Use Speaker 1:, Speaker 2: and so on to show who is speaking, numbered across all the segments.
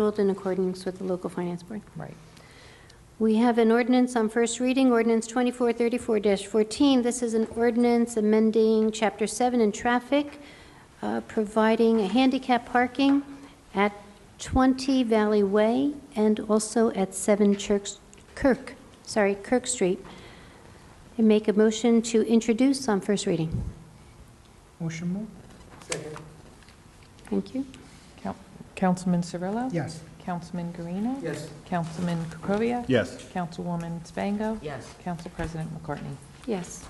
Speaker 1: Ruled in accordance with the local finance board.
Speaker 2: Right.
Speaker 1: We have an ordinance on first reading, ordinance 2434-14. This is an ordinance amending Chapter 7 in traffic, uh, providing a handicap parking at 20 Valley Way and also at 7 Chirk, Kirk, sorry, Kirk Street. And make a motion to introduce on first reading.
Speaker 3: Motion move?
Speaker 1: Thank you.
Speaker 2: Coun- Councilman Cirillo?
Speaker 3: Yes.
Speaker 2: Councilman Guarino?
Speaker 3: Yes.
Speaker 2: Councilman Krokoviac?
Speaker 4: Yes.
Speaker 2: Councilwoman Spango?
Speaker 5: Yes.
Speaker 2: Council President McCartney?
Speaker 1: Yes.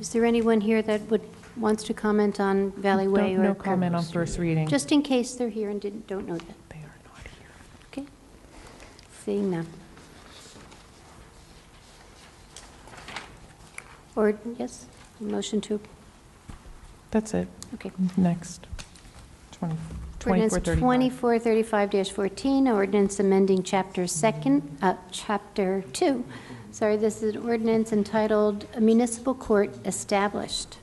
Speaker 1: Is there anyone here that would, wants to comment on Valley Way
Speaker 2: Don't-
Speaker 1: or
Speaker 2: No comment on first reading.
Speaker 1: Just in case they're here and didn't, don't know that.
Speaker 2: They are not here.
Speaker 1: Okay. Seeing none. Or, yes, motion to,
Speaker 2: That's it.
Speaker 1: okay.
Speaker 2: Next. 20
Speaker 1: Ordinance
Speaker 2: 2435.
Speaker 1: 2435-14, ordinance amending Chapter 2nd, uh, Chapter 2. Sorry, this is an ordinance entitled Municipal Court Established.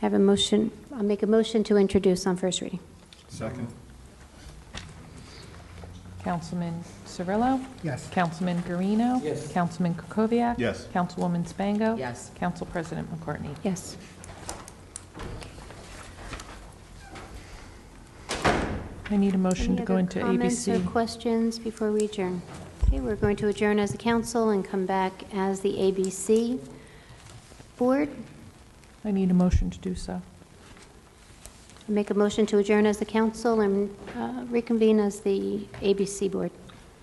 Speaker 1: I have a motion, I'll make a motion to introduce on first reading.
Speaker 4: Second.
Speaker 2: Councilman Cirillo?
Speaker 3: Yes.
Speaker 2: Councilman Guarino? Yes. Councilman Krokoviac?
Speaker 4: Yes.
Speaker 2: Councilwoman Spango?
Speaker 5: Yes.
Speaker 2: Council President McCartney?
Speaker 1: Yes.
Speaker 2: I need a motion to go into
Speaker 1: Any other comments or
Speaker 2: ABC.
Speaker 1: questions before we adjourn? Okay, we're going to adjourn as a council and come back as the ABC Board.
Speaker 2: I need a motion to do so.
Speaker 1: Make a motion to adjourn as the council and uh, reconvene as the ABC Board.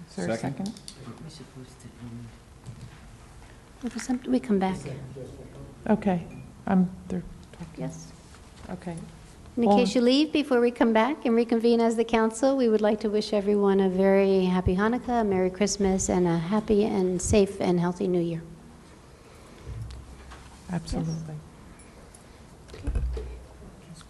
Speaker 2: Is there a
Speaker 4: Second.
Speaker 2: second?
Speaker 5: We're supposed to, um,
Speaker 1: If it's something- We come back,
Speaker 2: Okay. I'm, they're talking.
Speaker 1: yes.
Speaker 2: Okay.
Speaker 1: In
Speaker 2: All-
Speaker 1: case you leave, before we come back and reconvene as the council, we would like to wish everyone a very happy Hanukkah, a Merry Christmas, and a happy and safe and healthy New Year.
Speaker 2: Absolutely.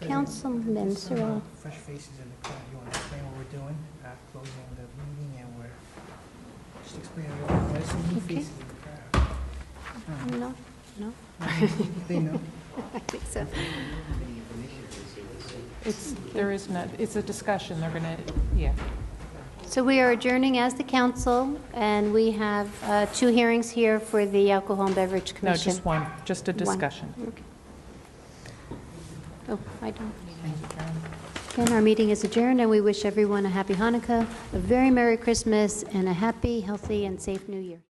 Speaker 1: Councilman
Speaker 3: Some, uh,
Speaker 1: Cirillo.
Speaker 3: Fresh faces in the crowd, you want to explain what we're doing, uh, closing the meeting, and we're, just explain what we're, there's some new
Speaker 1: Okay.
Speaker 3: faces in the crowd. Uh,
Speaker 1: No, no,
Speaker 3: They know.
Speaker 1: I think so.
Speaker 2: It's, there is no, it's a discussion, they're gonna, yeah.
Speaker 1: So we are adjourning as the council, and we have uh, two hearings here for the Alcohol and Beverage
Speaker 2: No,
Speaker 1: Commission.
Speaker 2: just one, just a
Speaker 1: One.
Speaker 2: discussion.
Speaker 1: Okay. Oh, I don't. Again, our meeting is adjourned, and we wish everyone a happy Hanukkah, a very Merry Christmas, and a happy, healthy, and safe New Year.